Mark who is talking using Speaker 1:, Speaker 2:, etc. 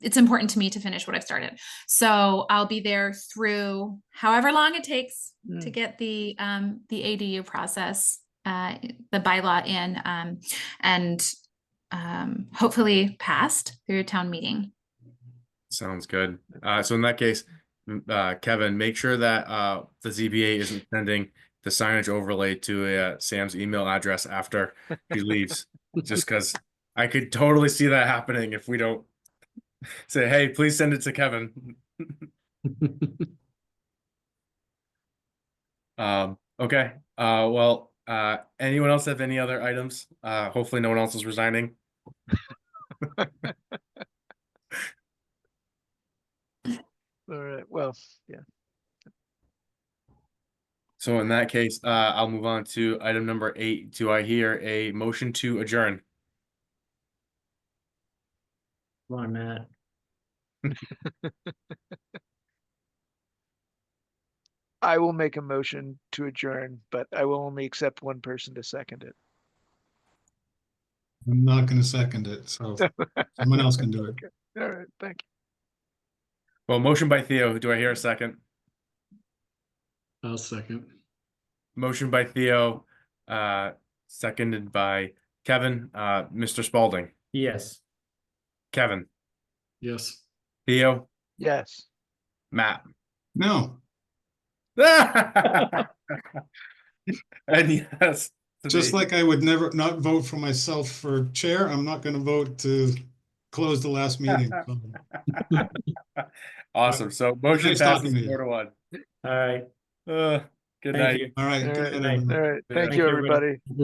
Speaker 1: it's important to me to finish what I've started. So I'll be there through however long it takes to get the um the ADU process, uh the bylaw in um and um hopefully passed through town meeting.
Speaker 2: Sounds good. Uh, so in that case, m- uh, Kevin, make sure that, uh, the ZBA isn't sending the signage overlay to, uh, Sam's email address after he leaves. Just cause I could totally see that happening if we don't say, hey, please send it to Kevin. Um, okay, uh, well, uh, anyone else have any other items? Uh, hopefully no one else is resigning.
Speaker 3: All right, well, yeah,
Speaker 2: So in that case, uh, I'll move on to item number eight. Do I hear a motion to adjourn?
Speaker 4: Come on, Matt.
Speaker 3: I will make a motion to adjourn, but I will only accept one person to second it.
Speaker 5: I'm not gonna second it, so someone else can do it.
Speaker 3: All right, thank you.
Speaker 2: Well, motion by Theo. Do I hear a second?
Speaker 4: I'll second.
Speaker 2: Motion by Theo, uh, seconded by Kevin, uh, Mr. Spalding,
Speaker 4: Yes.
Speaker 2: Kevin,
Speaker 4: Yes.
Speaker 2: Theo,
Speaker 3: Yes.
Speaker 2: Matt.
Speaker 5: No,
Speaker 2: And yes. to
Speaker 5: just
Speaker 2: me.
Speaker 5: like I would never not vote for myself for chair, I'm not gonna vote to close the last meeting. So,
Speaker 2: Awesome. So motion
Speaker 5: Nice
Speaker 2: passes
Speaker 5: talking to you.
Speaker 2: four to one.
Speaker 4: All right.
Speaker 2: Uh, good
Speaker 4: Thank
Speaker 2: night.
Speaker 4: you.
Speaker 5: All right.
Speaker 3: All
Speaker 5: good
Speaker 3: right,
Speaker 5: night,
Speaker 3: all
Speaker 5: everyone.
Speaker 3: right, thank
Speaker 4: Thank
Speaker 3: you,
Speaker 4: you, everybody.
Speaker 3: everybody.